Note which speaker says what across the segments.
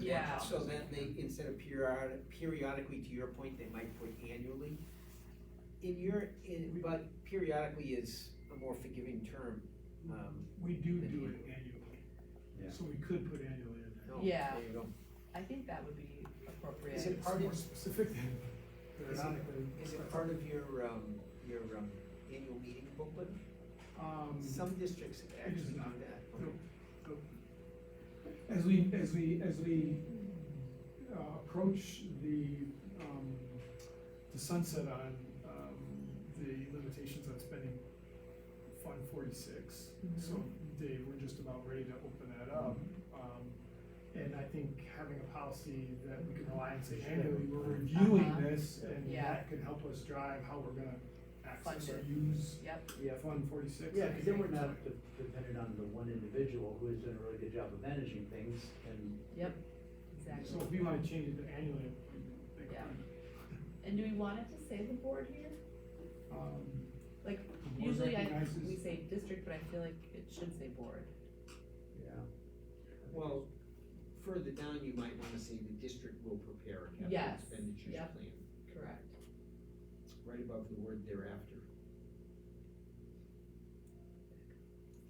Speaker 1: Yeah.
Speaker 2: So then they, instead of periodic, periodically, to your point, they might put annually. In your, in, but periodically is a more forgiving term, um,
Speaker 3: We do do it annually.
Speaker 4: Yeah.
Speaker 3: So we could put annually in there.
Speaker 2: no,
Speaker 1: Yeah.
Speaker 2: there you go.
Speaker 1: I think that would be appropriate.
Speaker 2: Is it part of,
Speaker 3: It's more specific than
Speaker 2: Is it-
Speaker 3: periodically.
Speaker 2: is it part of your, um, your, um, annual meeting booklet?
Speaker 3: Um,
Speaker 2: Some districts actually do
Speaker 3: not.
Speaker 2: that.
Speaker 3: Nope. as we, as we, as we, uh, approach the, um, the sunset on, um, the limitations on spending Fund forty-six, so Dave, we're just about ready to open that up. Um, and I think having a policy that we can rely on, say, annually, we're reviewing
Speaker 1: Uh-huh.
Speaker 3: this, and
Speaker 1: Yeah.
Speaker 3: that can help us drive how we're gonna access or
Speaker 1: Fund
Speaker 3: use
Speaker 1: Yep,
Speaker 4: Yeah,
Speaker 3: Fund forty-six.
Speaker 4: yeah, because then we're not de- dependent on the one individual who has done a really good job of managing things and.
Speaker 1: yep,
Speaker 3: So
Speaker 1: exactly.
Speaker 3: if we wanna change it to annually, we think,
Speaker 1: Yeah. And do we want it to say the board here?
Speaker 3: um,
Speaker 1: Like,
Speaker 3: the board
Speaker 1: Usually I,
Speaker 3: recognizes-
Speaker 1: we say district, but I feel like it should say board.
Speaker 4: Yeah.
Speaker 2: Well, further down, you might wanna say the district will prepare a capital
Speaker 1: Yes,
Speaker 2: expenditures
Speaker 1: yep.
Speaker 2: plan,
Speaker 1: Correct.
Speaker 2: right above the word thereafter.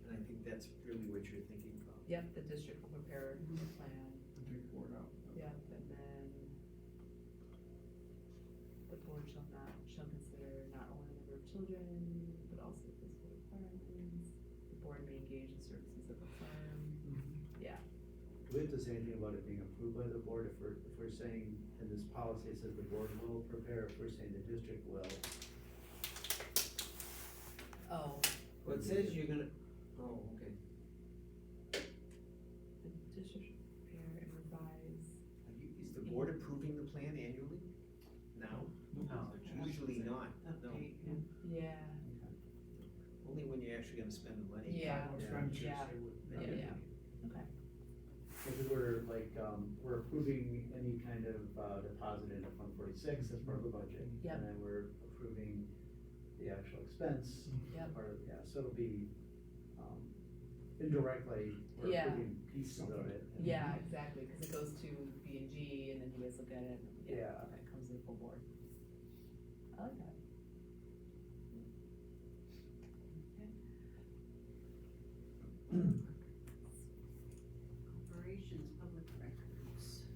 Speaker 2: And I think that's really what you're thinking about.
Speaker 1: Yep, the district will prepare a plan,
Speaker 3: Mm-hmm. the big board out.
Speaker 1: yep, and then the board shall not, shall consider not only the number of children, but also physical requirements. The board may engage in services of the firm.
Speaker 4: Do we have to say anything about it being approved by the board if we're, if we're saying in this policy it says the board will prepare, if we're saying the district will?
Speaker 1: Oh,
Speaker 2: Well, it says you're gonna, oh, okay,
Speaker 1: the district shall prepare and revise.
Speaker 2: Are you- is the board approving the plan annually? Now? Oh.
Speaker 4: No.
Speaker 2: Usually not, no,
Speaker 1: update and- Yeah,
Speaker 2: only when you're actually gonna spend the money.
Speaker 1: Yeah.
Speaker 3: Or expenditures,
Speaker 1: Yeah.
Speaker 3: they would-
Speaker 1: Yeah, yeah. okay.
Speaker 4: Because we're like, um, we're approving any kind of, uh, deposit into Fund forty-six as part of the budget.
Speaker 1: Yep.
Speaker 4: And then we're approving the actual expense.
Speaker 1: Yep.
Speaker 4: Part of, yeah, so it'll be, um, indirectly, we're
Speaker 1: Yeah.
Speaker 4: approving pieces of it. and-
Speaker 1: Yeah, exactly, cause it goes to B and G and then you guys look at it, and, yeah,
Speaker 4: Yeah.
Speaker 1: okay, it comes to the full board. I like that.
Speaker 5: Corporations, public records.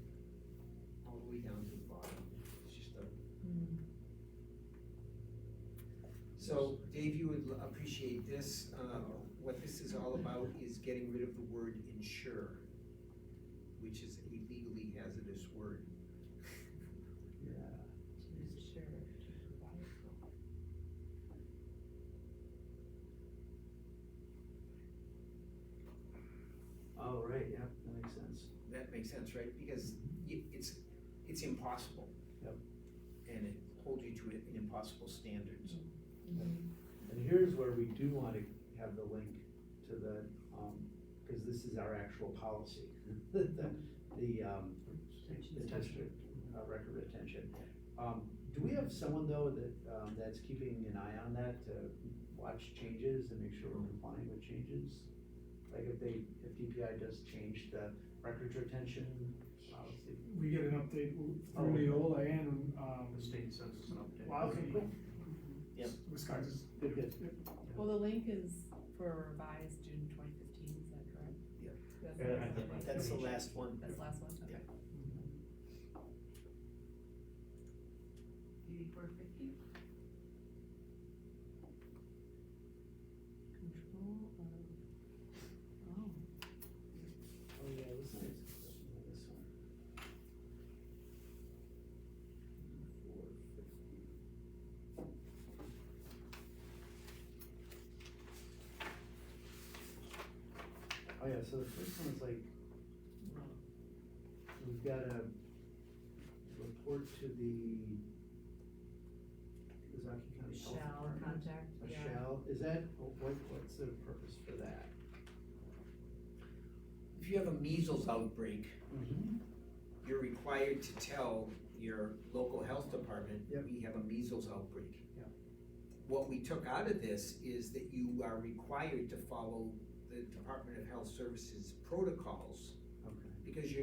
Speaker 2: All the way down to the bottom, it's just a.
Speaker 1: Hmm.
Speaker 2: So Dave, you would l- appreciate this, uh, what this is all about is getting rid of the word insure, which is a legally hazardous word.
Speaker 4: Yeah.
Speaker 1: Sure.
Speaker 4: Oh, right, yeah, that makes sense.
Speaker 2: That makes sense, right? Because y- it's, it's impossible.
Speaker 4: Yep.
Speaker 2: And it holds you to an impossible standards.
Speaker 1: Mm-hmm.
Speaker 4: And here's where we do want to have the link to the, um, because this is our actual policy. The, the, um, the district uh, record retention. Um, do we have someone though that, um, that's keeping an eye on that to watch changes and make sure we're complying with changes? Like if they, if DPI does change the records retention policy?
Speaker 3: We get an update
Speaker 4: Oh.
Speaker 3: through Neola and, um.
Speaker 4: state sends us an update.
Speaker 3: Wildcat.
Speaker 2: Yep.
Speaker 3: Wisconsin's.
Speaker 4: Good, good.
Speaker 1: Well, the link is for a revised June twenty fifteen, is that correct?
Speaker 2: Yeah.
Speaker 1: That's
Speaker 4: Yeah, I
Speaker 1: the
Speaker 4: think
Speaker 1: last
Speaker 2: That's the
Speaker 1: one.
Speaker 2: last one.
Speaker 1: That's the last one, okay.
Speaker 5: Eighty-four fifty.
Speaker 1: Control of, oh.
Speaker 4: Oh, yeah, this is, this one. Four fifty. Oh, yeah, so the first one is like, we've got a report to the Kawasaki County Health
Speaker 1: Shall
Speaker 4: Department.
Speaker 1: contact,
Speaker 4: A
Speaker 1: yeah.
Speaker 4: shall, is that, what, what's the purpose for that?
Speaker 2: If you have a measles outbreak, you're required to tell your local health department,
Speaker 4: Yep.
Speaker 2: we have a measles outbreak.
Speaker 4: Yep.
Speaker 2: What we took out of this is that you are required to follow the Department of Health Services protocols,
Speaker 4: Okay.
Speaker 2: because you're